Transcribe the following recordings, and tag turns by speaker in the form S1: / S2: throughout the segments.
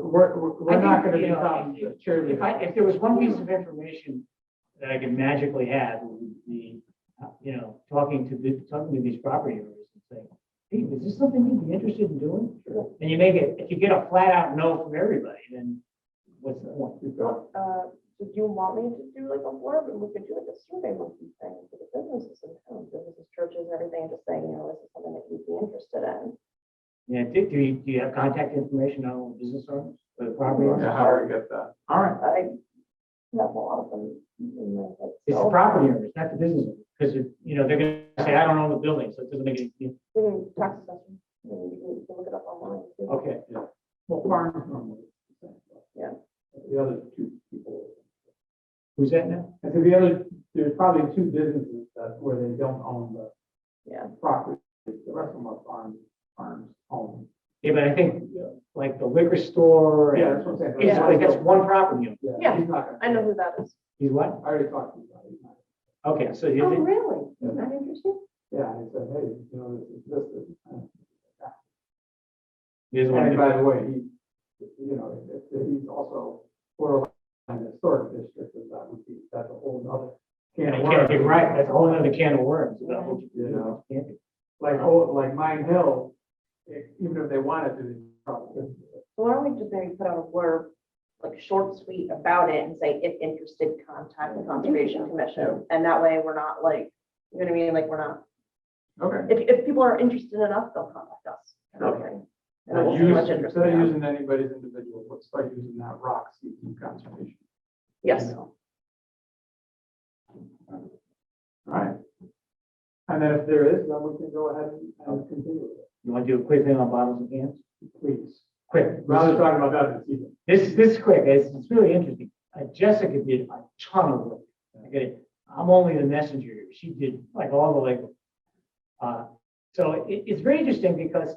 S1: we're, we're-
S2: I
S1: we're not
S2: think,
S1: gonna
S2: you know,
S1: become
S2: if-
S1: cheerleaders.
S2: If I, if there was one piece of information that I could magically have, it would be, uh, you know, talking to, the- talking to these property owners and saying, hey, is this something you'd be interested in doing? And you make it, if you get a flat out no from everybody, then what's the point?
S3: Well, uh, do you want me to do like a blurb and we could do like a survey with these things for the businesses in town, businesses, churches, and everything, just saying, you know, this is something that you'd be interested in.
S2: Yeah, do, do you, do you have contact information on business owners or the property owners?
S4: Yeah, how do we get that?
S1: All right,
S3: I have a lot of them in my head.
S2: It's the
S3: so-
S2: property owners, not the business owners, because, you know, they're gonna say, I don't own the building, so it doesn't make any,
S3: We can talk to them, we can we can look it up online. too.
S1: Oh.
S2: okay.
S1: well, farms normally.
S3: Yeah.
S4: The other two people.
S2: Who's that now?
S1: And so the other, there's probably two businesses that, where they don't own the
S3: Yeah,
S1: property, the rest of them are farms, farms, homes.
S2: Yeah, but I think, uh, like, the liquor store. and-
S1: Yeah, that's what I'm saying.
S2: It's like, that's one property owner.
S1: Yeah, he's not gonna-
S3: I know who that is.
S2: He's what?
S1: I already talked to you about it. He's not-
S2: Okay, so you
S3: Oh,
S2: did,
S3: really? You're not interested?
S1: Yeah, I said, hey, you know, this is, this is.
S2: there's
S1: And
S2: one,
S1: by the way, he, you know, if- if he's also borderline historic district, and that would be, that's a whole nother. can
S2: and I
S1: of
S2: can't get
S1: worms.
S2: right, that's a whole other can of worms. about what you do and
S1: Yeah.
S2: what you can't do.
S1: Like, oh, like Mine Hill, if- even if they wanted to, they probably couldn't do it.
S3: So why don't we just maybe put out a blurb, like short sweet about it and say, if interested, contact the Conservation Commission. And that way we're not like, you know what I mean? Like, we're not,
S1: Okay.
S3: if, if people are interested enough, they'll contact us.
S1: Okay.
S3: And then we'll
S1: Not
S3: see how
S1: use-
S3: much interest we
S1: Instead of
S3: have.
S1: using anybody's individual, let's start using that rock seeking conservation.
S3: Yes.
S1: All right. And then if there is, then we can go ahead and- and continue with it,
S2: You want to do a quick thing on bottles and cans?
S1: please.
S2: Quick,
S1: Rather than talking about that this evening.
S2: this, this is quick, it's, it's really interesting. Uh, Jessica did a ton of work. I get it. I'm only the messenger. She did like all the labor. Uh, so it, it's very interesting because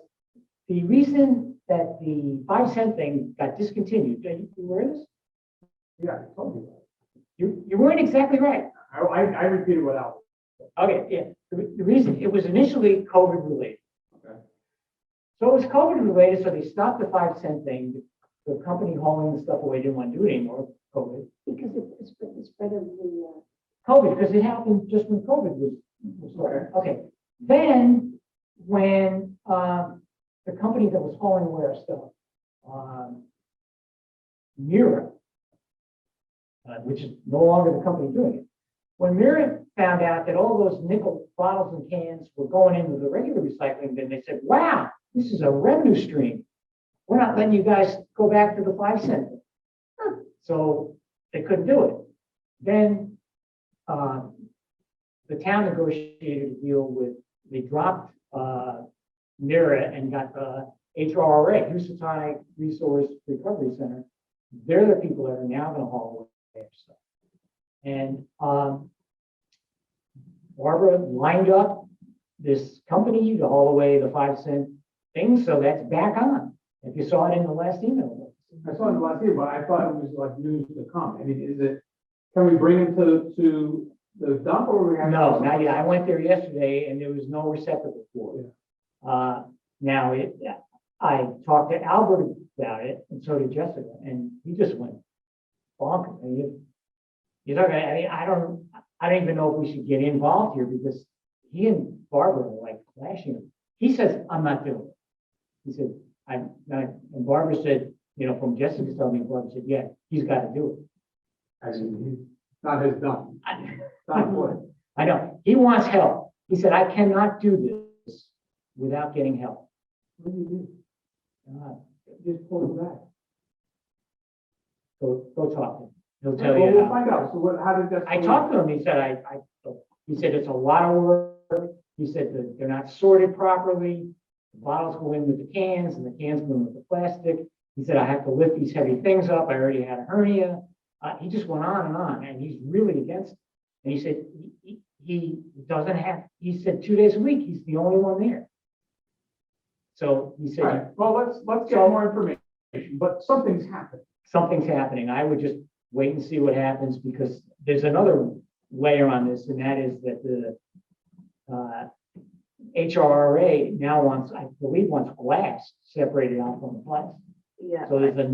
S2: the reason that the five cent thing got discontinued, are you aware of this?
S1: Yeah, I told you that.
S2: You, you weren't exactly right.
S1: I, I, I repeated what Al.
S2: Okay, yeah, the re- the reason, it was initially COVID related.
S1: Okay.
S2: So it was COVID related, so they stopped the five cent thing, the company hauling the stuff away didn't want to do it anymore, COVID.
S3: Because it's, it's better than.
S2: COVID, because it happened just when COVID was, was starting. okay. Then, when, um, the company that was hauling away our stuff, um, Mira, uh, which is no longer the company doing it. When Mira found out that all those nickel bottles and cans were going into the regular recycling bin, they said, wow, this is a revenue stream. We're not letting you guys go back to the five cent. thing." So they couldn't do it. Then um, the town negotiated a deal with, they dropped uh, NERA and got uh, the HRRA, Housatonic Resource Recovery Center. They're the people that are now going to haul away their stuff. And um, Barbara lined up this company to haul away the five cent thing, so that's back on. If you saw it in the last email.
S1: I saw it last year, but I thought it was like news to come. I mean, is it, can we bring him to, to the dump or we have?
S2: No, not yet. I went there yesterday and there was no receptacle for it. Uh, now it, I talked to Albert about it and so did Jessica and he just went bonkers. I mean, You're not gonna, I mean, I don't, I don't even know if we should get involved here because he and Barbara were like clashing. He says, I'm not doing it. He said, I'm not, and Barbara said, you know, from Jessica's telling me, Barbara said, yeah, he's gotta do it.
S1: I mean, he's not his dump,
S2: I-
S1: it's not what.
S2: I know, he wants help. He said, I cannot do this without getting help.
S1: What do you
S2: God,
S1: do? Just pull him back.
S2: Go, go talk to him. He'll
S1: Well,
S2: tell you.
S1: we'll
S2: how.
S1: find out. So what, how did that?
S2: I talked to him, he said, I, I, he said, it's a lot of work. He said that they're not sorted properly. The bottles go in with the cans and the cans go in with the plastic. He said, I have to lift these heavy things up. I already had a hernia. Uh, he just went on and on and he's really against. it. And he said, he, he he doesn't have, he said, two days a week, he's the only one there. So he
S1: All
S2: said,
S1: right, well, let's, let's get
S2: So-
S1: more information, but something's happened.
S2: something's happening. I would just wait and see what happens because there's another layer on this, and that is that the uh, HRRA now wants, I believe, wants glass separated out from the plastic.
S3: Yeah.
S2: So there's a